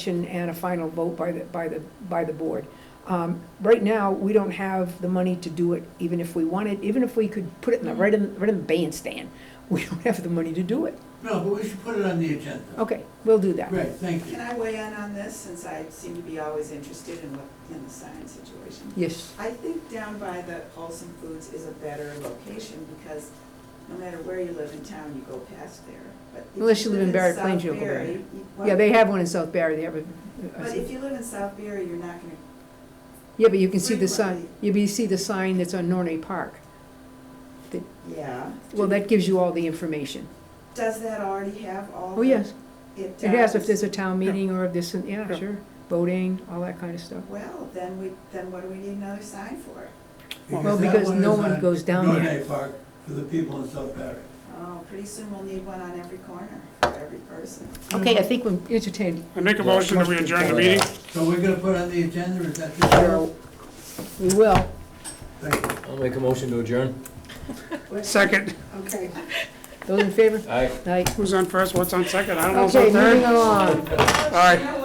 and a final vote by the, by the, by the board. Um, Right now, we don't have the money to do it, even if we wanted, even if we could put it in the, right in, right in the bandstand, we don't have the money to do it. No, but we should put it on the agenda. Okay, we'll do that. Great, thank you. Can I weigh in on this, since I seem to be always interested in what, in the sign situation? Yes, I think down by the Wholesome Foods is a better location, because no matter where you live in town, you go past there. But if Unless you live in Barrett South Plains, you'll go there. Barry, you- yeah, well, they have one in South Barry, they have a- But if a, you live in South Barry, you're not gonna, yeah, but you can see the sign, frequently- you can see the sign that's on Nornay Park. yeah. Well, that gives you all the information. Does that already have all? Oh, yes, It it has, if does. there's a town meeting or if this, and- yeah, sure, voting, all that kind of stuff. Well, then we, then what do we need another sign for? Well, that because no is one on goes down there. Norday Park for the people in South Barry. Oh, pretty soon we'll need one on every corner, for every person. Okay, I think we're entertained. I make a motion that we adjourn the meeting. So we're gonna put on the agenda, is that the So, We will. Thank you. I'll make a motion to adjourn. Second, Okay. Those in favor? Aye. Aye. who's on first, what's on second, I don't know what's Okay, on moving along. third. All right.